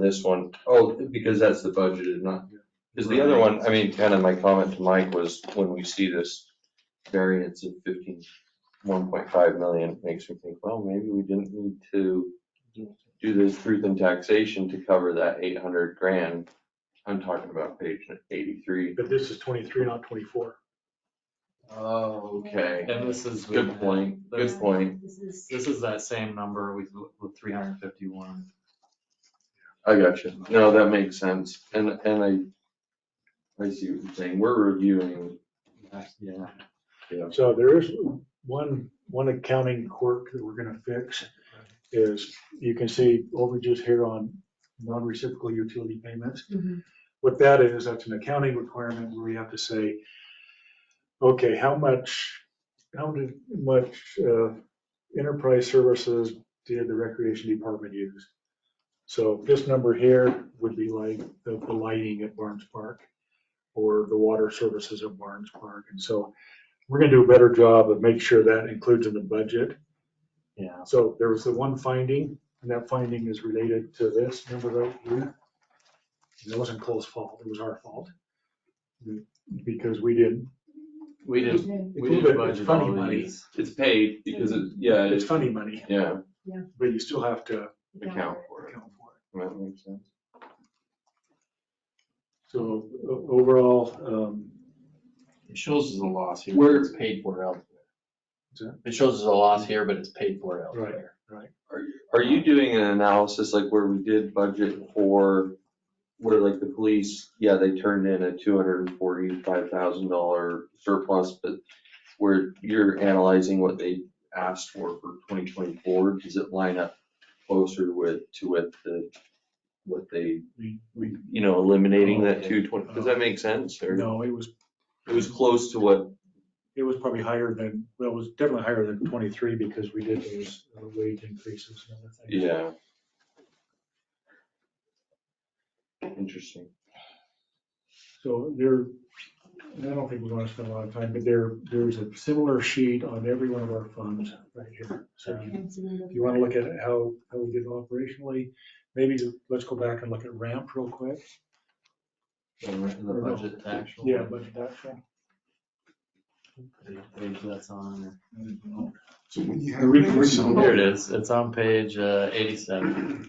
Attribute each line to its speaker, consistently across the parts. Speaker 1: this one. Oh, because that's the budgeted, not, because the other one, I mean, kind of my comment to Mike was, when we see this variance of fifteen, one point five million, it makes me think, well, maybe we didn't need to do this truth in taxation to cover that eight hundred grand. I'm talking about page eighty-three.
Speaker 2: But this is twenty-three, not twenty-four.
Speaker 1: Oh, okay.
Speaker 3: And this is. with-
Speaker 1: Good point, good
Speaker 3: this-
Speaker 1: point.
Speaker 4: This is,
Speaker 3: This is that same number with, with three hundred and fifty-one.
Speaker 1: I gotcha. No, that makes sense. And, and I, I see what you're saying. We're reviewing.
Speaker 3: Yeah.
Speaker 2: So there is one, one accounting quirk that we're gonna fix is you can see overages here on non-reciprocal utility payments.
Speaker 4: Mhm.
Speaker 2: What that is, that's an accounting requirement where we have to say, okay, how much, how did, much, uh, enterprise services did the recreation department use? So this number here would be like the, the lighting at Barnes Park or the water services at Barnes Park. And so we're gonna do a better job of making sure that includes in the budget.
Speaker 3: Yeah.
Speaker 2: So there was the one finding, and that finding is related to this number right here. And It wasn't Cole's fault, it was our fault. Because we didn't,
Speaker 3: We didn't,
Speaker 4: Mhm.
Speaker 3: we
Speaker 2: It's
Speaker 3: didn't
Speaker 2: a little bit- it's
Speaker 3: budget
Speaker 2: funny
Speaker 3: all
Speaker 2: money.
Speaker 3: these.
Speaker 1: It's paid because it, yeah,
Speaker 2: it's
Speaker 1: it's,
Speaker 2: funny money,
Speaker 1: yeah,
Speaker 2: but you still have to
Speaker 4: Yeah.
Speaker 1: account for it.
Speaker 2: account for it.
Speaker 1: That makes sense.
Speaker 2: So o- overall, um,
Speaker 5: It shows as a loss here,
Speaker 1: Where-
Speaker 5: but it's paid for elsewhere.
Speaker 2: Is that-
Speaker 5: It shows as a loss here, but it's paid for
Speaker 2: right,
Speaker 5: elsewhere.
Speaker 2: right.
Speaker 1: Are you doing an analysis like where we did budget for, where like the police, yeah, they turned in a two hundred and forty-five thousand dollar surplus, but where you're analyzing what they asked for for twenty twenty-four, does it line up closer with, to what the, what they,
Speaker 2: We- we-
Speaker 1: you know, eliminating that
Speaker 2: Okay.
Speaker 1: two twenty, does that make sense? Or
Speaker 2: No, it was,
Speaker 1: it was close to what,
Speaker 2: it was probably higher than, well, it was definitely higher than twenty-three because we did those uh, wage increases and other things.
Speaker 1: yeah. Interesting.
Speaker 2: So there, I don't think we want to spend a lot of time, but there, there's a similar sheet on every one of our funds right here. So
Speaker 4: And so we look-
Speaker 2: if you want to look at how, how we did operationally, maybe let's go back and look at ramp real quick.
Speaker 3: The budget to actual.
Speaker 2: Yeah, but that's.
Speaker 3: Page that's on.
Speaker 6: So when you
Speaker 2: The recon-
Speaker 6: have some,
Speaker 3: Here it is. It's on page uh, eighty-seven.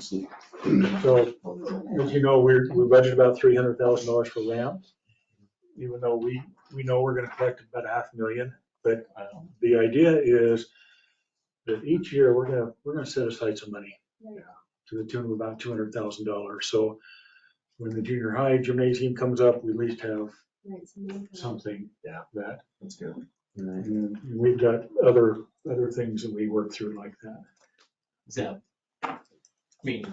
Speaker 2: So as you know, we're, we budgeted about three hundred thousand dollars for ramp. Even though we, we know we're going to collect about a half million, but the idea is that each year we're going to, we're going to set aside some money.
Speaker 4: Right.
Speaker 2: to the tune of about two hundred thousand dollars. So when the junior high gymnasium comes up, we at least have
Speaker 4: right, so we look at-
Speaker 2: something that,
Speaker 1: That's good.
Speaker 2: and then we've got other, other things that we work through like that.
Speaker 5: Is that, I mean,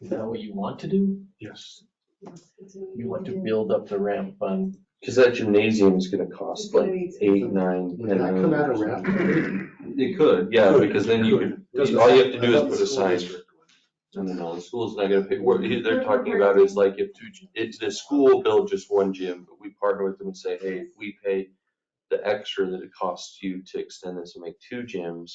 Speaker 5: is that what you want to do?
Speaker 2: Yes.
Speaker 4: yes, it's a-
Speaker 5: You want to build up the ramp fund?
Speaker 1: Cause that gymnasium is gonna cost like eight, nine,
Speaker 6: would
Speaker 1: ten
Speaker 6: that come out
Speaker 1: million.
Speaker 6: of ramp?
Speaker 1: It could, yeah,
Speaker 2: Could,
Speaker 1: because then you
Speaker 2: could.
Speaker 1: could, all you have to do is put a sign. No, no, no, the school's not gonna pay, what he- they're talking about is like if, if the school built just one gym, but we partner with them and say, hey, if we pay the extra that it costs you to extend this and make two gyms,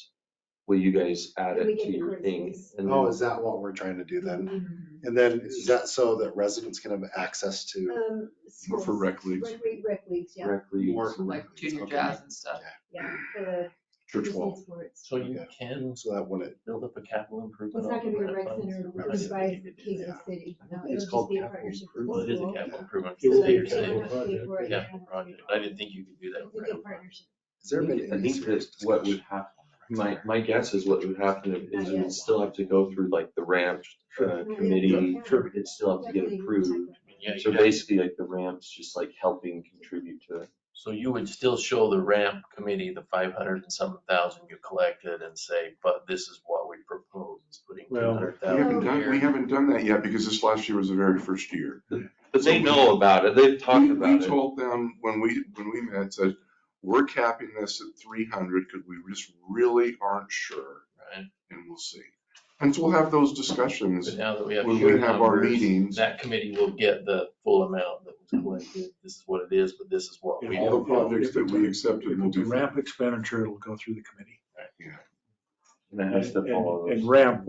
Speaker 1: will you guys add
Speaker 4: We
Speaker 1: it
Speaker 4: get
Speaker 1: to
Speaker 4: the
Speaker 1: your
Speaker 4: green
Speaker 1: thing?
Speaker 4: space.
Speaker 1: And
Speaker 6: Oh,
Speaker 1: then
Speaker 6: is that what we're trying to do then?
Speaker 4: Mhm.
Speaker 7: Mm-hmm.
Speaker 6: And then is that so that residents can have access
Speaker 7: Uh,
Speaker 6: to
Speaker 4: Um,
Speaker 7: More for
Speaker 4: schools,
Speaker 7: rec leagues,
Speaker 4: Rec, league- rec leagues, yeah,
Speaker 1: directly.
Speaker 6: more?
Speaker 7: like junior jazz and stuff.
Speaker 4: yeah, for the
Speaker 7: Church
Speaker 4: Disney
Speaker 7: wall.
Speaker 4: sports.
Speaker 5: So you
Speaker 6: Okay.
Speaker 5: can
Speaker 6: So that when it,
Speaker 5: build up a capital
Speaker 4: Well,
Speaker 5: improvement.
Speaker 4: It's not
Speaker 5: on
Speaker 4: gonna be
Speaker 5: the
Speaker 4: a rec
Speaker 5: ramp fund.
Speaker 4: center
Speaker 6: Right.
Speaker 4: organized by Kids in the
Speaker 6: Yeah.
Speaker 4: City, no,
Speaker 6: It's
Speaker 4: it'll just
Speaker 6: called
Speaker 4: be a
Speaker 6: capital
Speaker 4: partnership with
Speaker 5: Well, it
Speaker 4: the
Speaker 5: is a
Speaker 4: school.
Speaker 5: capital improvement.
Speaker 2: It
Speaker 4: So
Speaker 2: will
Speaker 5: So
Speaker 2: be a
Speaker 5: you're
Speaker 4: they
Speaker 2: capital
Speaker 4: don't
Speaker 5: saying
Speaker 4: have to pay
Speaker 2: project.
Speaker 4: for it, they
Speaker 5: Yeah,
Speaker 4: don't have to pay
Speaker 5: project.
Speaker 4: for
Speaker 5: I
Speaker 4: it.
Speaker 5: didn't think you could do that.
Speaker 4: It's a
Speaker 5: with ramp
Speaker 4: good
Speaker 5: fund.
Speaker 4: partnership.
Speaker 6: has there been
Speaker 1: I
Speaker 6: any
Speaker 1: think
Speaker 6: serious
Speaker 1: that what would
Speaker 6: discussion?
Speaker 1: happen, my, my guess is what would happen is it would still have to go through like the ramp uh, committee.
Speaker 4: Sure.
Speaker 1: It'd still have to get
Speaker 4: Definitely
Speaker 1: approved.
Speaker 4: check
Speaker 5: I mean, yeah,
Speaker 1: So
Speaker 5: you'd have-
Speaker 1: basically like the ramp's just like helping contribute to it.
Speaker 5: So you would still show the ramp committee the five hundred and some thousand you collected and say, but this is what we propose, is putting two
Speaker 2: Well,
Speaker 5: hundred
Speaker 7: We haven't
Speaker 5: thousand
Speaker 7: done, we
Speaker 5: here.
Speaker 7: haven't done that yet because this last year was the very first year.
Speaker 1: But they know about it, they've talked
Speaker 7: We-
Speaker 1: about
Speaker 7: We
Speaker 1: it.
Speaker 7: told them when we, when we met, said, we're capping this at three hundred because we just really aren't sure
Speaker 5: Right,
Speaker 7: and we'll see. And so we'll have those discussions
Speaker 5: but now that we have.
Speaker 7: when
Speaker 5: your
Speaker 7: we have our
Speaker 5: numbers,
Speaker 7: meetings.
Speaker 5: That committee will get the full amount that was collected. This is what it is, but this is what we.
Speaker 7: All the projects that we accepted
Speaker 2: If
Speaker 7: will
Speaker 2: it's a
Speaker 7: do.
Speaker 2: ramp expenditure, it'll go through the committee.
Speaker 1: and it has to follow those.
Speaker 2: And ramp